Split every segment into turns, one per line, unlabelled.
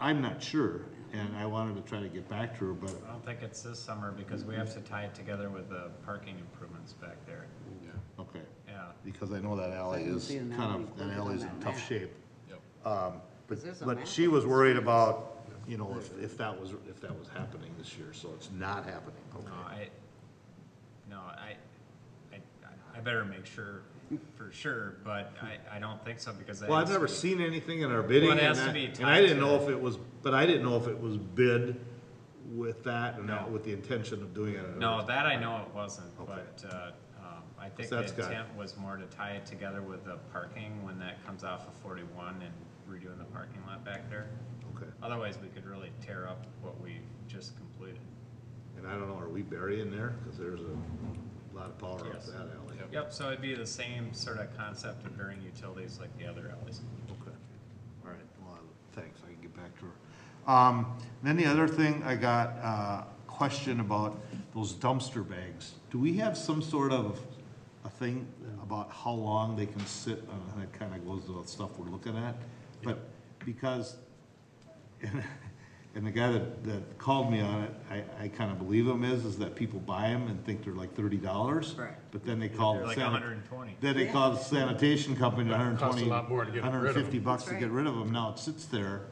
I'm not sure, and I wanted to try to get back to her, but
I don't think it's this summer because we have to tie it together with the parking improvements back there.
Okay,
Yeah,
because I know that alley
That would
is
be an alley
kind of, that
included
alley's
on
in
that
tough
map.
shape. Um, But,
there's a
but
map
she
of
was
the
worried
streets.
about, you know, if, if that was, if that was happening this year, so it's not happening,
no,
okay.
I, no, I, I, I better make sure for sure, but I, I don't think so because. that
Well, I've
has to
never
be-
seen anything in our bidding
Well, it
and
has to
that,
be
and I
tied
didn't
to-
know if it was, but I didn't know if it was bid with that and
No.
not with the intention of doing it. in
No,
other-
that I know it wasn't,
Okay.
but, uh, um, I think
So
the
that's got-
intent was more to tie it together with the parking when that comes off of forty-one and redoing the parking lot back there.
Okay,
Otherwise, we could really tear up what we've just completed.
and I don't know, are we burying there? Cause there's a lot of power up
Yes.
that alley.
Yep, so it'd be the same sort of concept of varying utilities like the other alleys.
Okay, all right, well, thanks, I can get back to her. Um, then the other thing, I got a question about those dumpster bags. Do we have some sort of a thing about how long they can sit, and that kinda goes to the stuff we're looking at? But, because, and the guy that, that called me on it, I, I kinda believe him is, is that people buy them and think they're like thirty dollars.
Correct.
But then they call.
They're like
sanit-
hundred and twenty.
then they call the sanitation company, hundred and
Costs
twenty,
a lot more to get rid of 'em.
hundred and fifty bucks to
That's
get
right.
rid of them, now it sits there.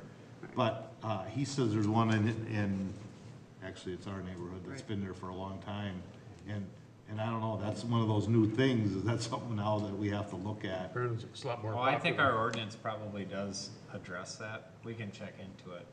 But, uh, he says there's one in, in, actually, it's our neighborhood that's
Right.
been there for a long time. And, and I don't know, that's one of those new things, is that something now that we have to look at?
Burns, it's a lot more
Well,
popular.
I think our ordinance probably does address that. We can check into it.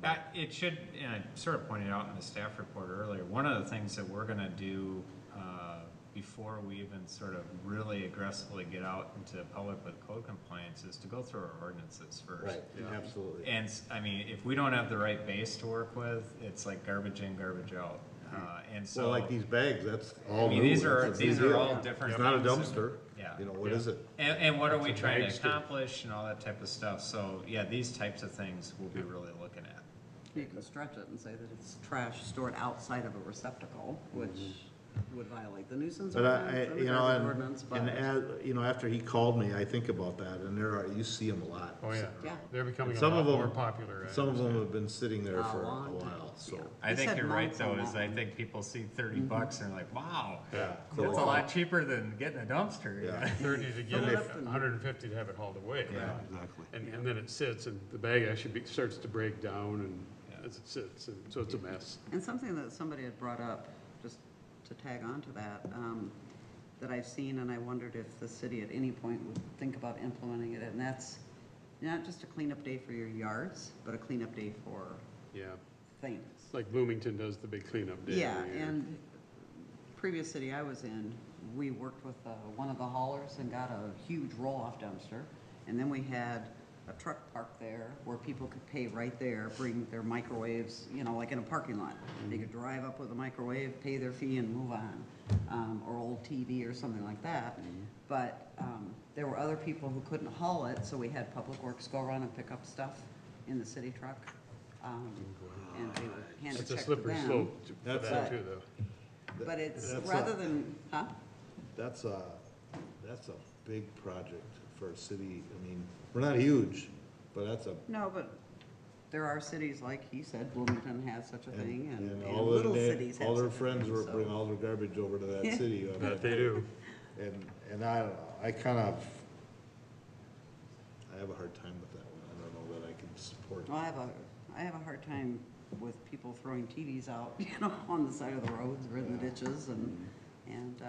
That, it should, and I sort of pointed out in the staff report earlier, one of the things that we're gonna do, uh, before we even sort of really aggressively get out into the public with code compliance is to go through our ordinances first.
absolutely.
And, s- I mean, if we don't have the right base to work with, it's like garbage in, garbage out.
Mm-hmm.
Uh, and so.
So like these bags, that's all
I mean,
new.
these are-
that's a new
these are
deal.
all different
It's not a
things that-
dumpster,
Yeah.
you know, what is it?
And, and what are we
It's a
trying to
bagster.
accomplish and all that type of stuff, so, yeah, these types of things we'll be really looking at.
You can stretch it and say that it's trash stored outside of a receptacle, which would violate the nuisance
Mm-hmm. But I,
ordinance
I-
and the
you know,
garbage ordinance,
and, and
but,
as, you know, after he called me, I think about that, and there are, you see them a lot.
Oh, yeah.
Yeah.
They're becoming
And
a
some
lot
of them-
more popular. eh? I
Some of them
understand.
have been sitting there
A
for a
long time,
while, so.
yeah.
I
They
think
said
you're right,
months
though,
on
is
that Mm-hmm.
I
one.
think people see thirty bucks and they're like, wow,
Yeah.
that's a lot cheaper than getting a dumpster.
Yeah.
Thirty to get
Fill it
it,
up and-
hundred and fifty to have it hauled away.
Yeah, exactly.
And, and then it sits and the bag actually be- starts to break down and as it sits, and so it's a mess.
and something that somebody had brought up, just to tag on to that, um, that I've seen, and I wondered if the city at any point would think about implementing it, and that's not just a cleanup day for your yards, but a cleanup day for
Yeah.
things.
It's like Bloomington does the big cleanup day
Yeah,
every year.
and previous city I was in, we worked with uh, one of the haulers and got a huge roll-off dumpster. And then we had a truck parked there where people could pay right there, bring their microwaves, you know, like in a parking lot. They could drive up with a microwave, pay their fee and move on, um, or old TV or something like that. But um, there were other people who couldn't haul it, so we had Public Works go around and pick up stuff in the city truck. um, And they would hand a
It's a
check to
slippery
them.
slope to- for
That's
that
a-
too, though.
But it's,
That's
rather
a-
than, huh?
That's a, that's a big project for a city, I mean, we're not huge, but that's a,
No, but there are cities, like he said, Bloomington has such a thing,
and,
and,
and
and
all their,
little
na-
cities have
all their
such a
friends
thing,
were,
so-
bring all their garbage over to that city. I mean,
That they do.
And, and I, don't know, I kind of, I have a hard time with that one, I don't know that I can support.
Well, I have a, I have a hard time with people throwing TVs out, you know, on the side of the roads or in the ditches and, and, uh,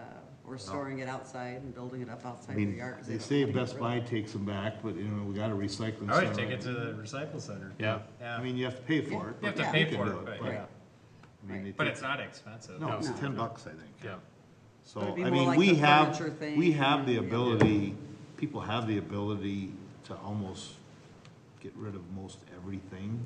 or storing it outside and building it up
I
outside their
mean,
yards.
they
don't
say
want to get
Best
rid
Buy
of it.
takes them back, but you know, we got a recycling
I
center.
would take it to the recycle center.
Yeah.
Yeah,
I mean, you have to pay for it.
you
but
have to pay
can
for
do
it, but,
but-
yeah,
I mean, they
but
take-
it's not expensive.
No, it's
No.
ten bucks, I think.
Yeah.
So,
But it'd be
I
more
mean,
like
we
the
have,
furniture thing
we have the
and-
ability, people have the ability to almost get rid of most everything.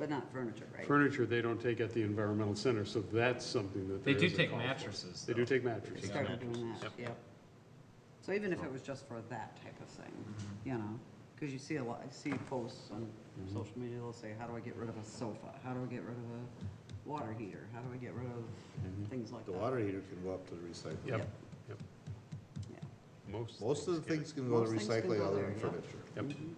But not furniture, right?
Furniture, they don't take at the environmental center, so that's something that
They
there
do
is a
take
call for.
mattresses,
They do
though.
take
They
mattresses.
started
mattresses.
doing that, yep. So even if it was just for that type of thing, you know, because you see a lot, I see posts on social media, they'll say, how do I get rid of a sofa? How do I get rid of a water heater? How do I get rid of things like that?
heater can go up to the recycling.
Yep,
Mm-hmm. Yep.
yep.
Yeah.
Most.
Most of the
get it.
things can go to
Most things can
recycling
go
other
there,
than
yeah.
furniture.
Yep.